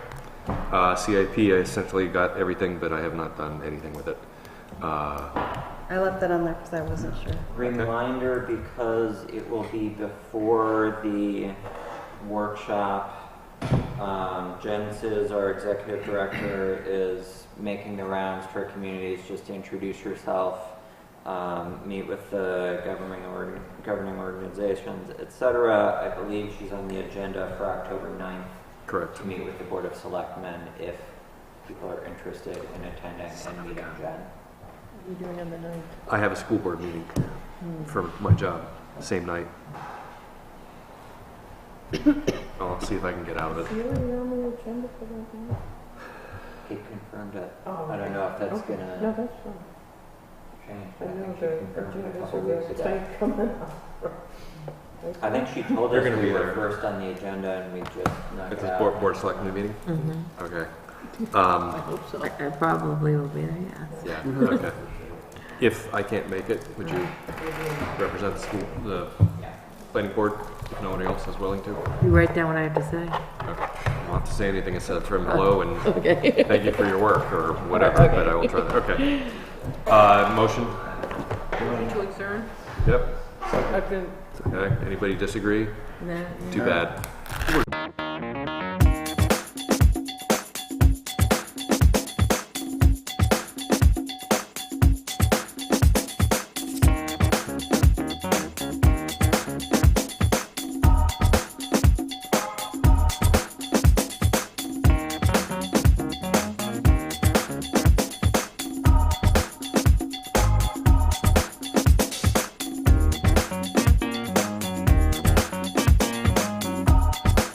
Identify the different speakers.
Speaker 1: Uh, CIP, I essentially got everything, but I have not done anything with it. Uh,
Speaker 2: I left that on there because I wasn't sure.
Speaker 3: Reminder because it will be before the workshop. Um, Jen Sis, our executive director, is making the rounds for communities just to introduce yourself, um, meet with the governing, org- governing organizations, etc. I believe she's on the agenda for October 9th
Speaker 1: Correct.
Speaker 3: to meet with the Board of Selectmen if people are interested in attending and meeting Jen.
Speaker 2: What are you doing on the ninth?
Speaker 1: I have a school board meeting
Speaker 3: Hmm.
Speaker 1: for my job, same night. I'll see if I can get out of it.
Speaker 2: you already on the agenda for that night?
Speaker 3: Kate confirmed it.
Speaker 2: Oh,
Speaker 3: I don't know if that's
Speaker 2: okay.
Speaker 3: gonna.
Speaker 2: No, that's fine.
Speaker 3: Change.
Speaker 2: I know
Speaker 3: think she
Speaker 2: the
Speaker 3: confirmed a
Speaker 2: agendas
Speaker 3: couple
Speaker 2: are very
Speaker 3: weeks ago.
Speaker 2: tight coming up.
Speaker 3: I think she told
Speaker 1: You're
Speaker 3: us
Speaker 1: gonna
Speaker 3: we
Speaker 1: be
Speaker 3: were
Speaker 1: there.
Speaker 3: first on the agenda and we just knocked
Speaker 1: It's
Speaker 3: it
Speaker 1: a
Speaker 3: out.
Speaker 1: board, board selecting meeting? Mm-hmm. Okay. Um,
Speaker 4: I I probably will be there, yeah.
Speaker 1: yeah, okay. If I can't make it, would you represent the school, the
Speaker 3: Yeah.
Speaker 1: planning board, if nobody else is willing to?
Speaker 4: You write down what I have to say.
Speaker 1: Okay. I won't have to say anything instead of him hello and
Speaker 4: Okay.
Speaker 1: thank you for your work or whatever, but I will try that, okay. Uh, motion?
Speaker 4: To adjourn?
Speaker 1: Yep. Okay, anybody disagree?
Speaker 4: No.
Speaker 1: Too bad.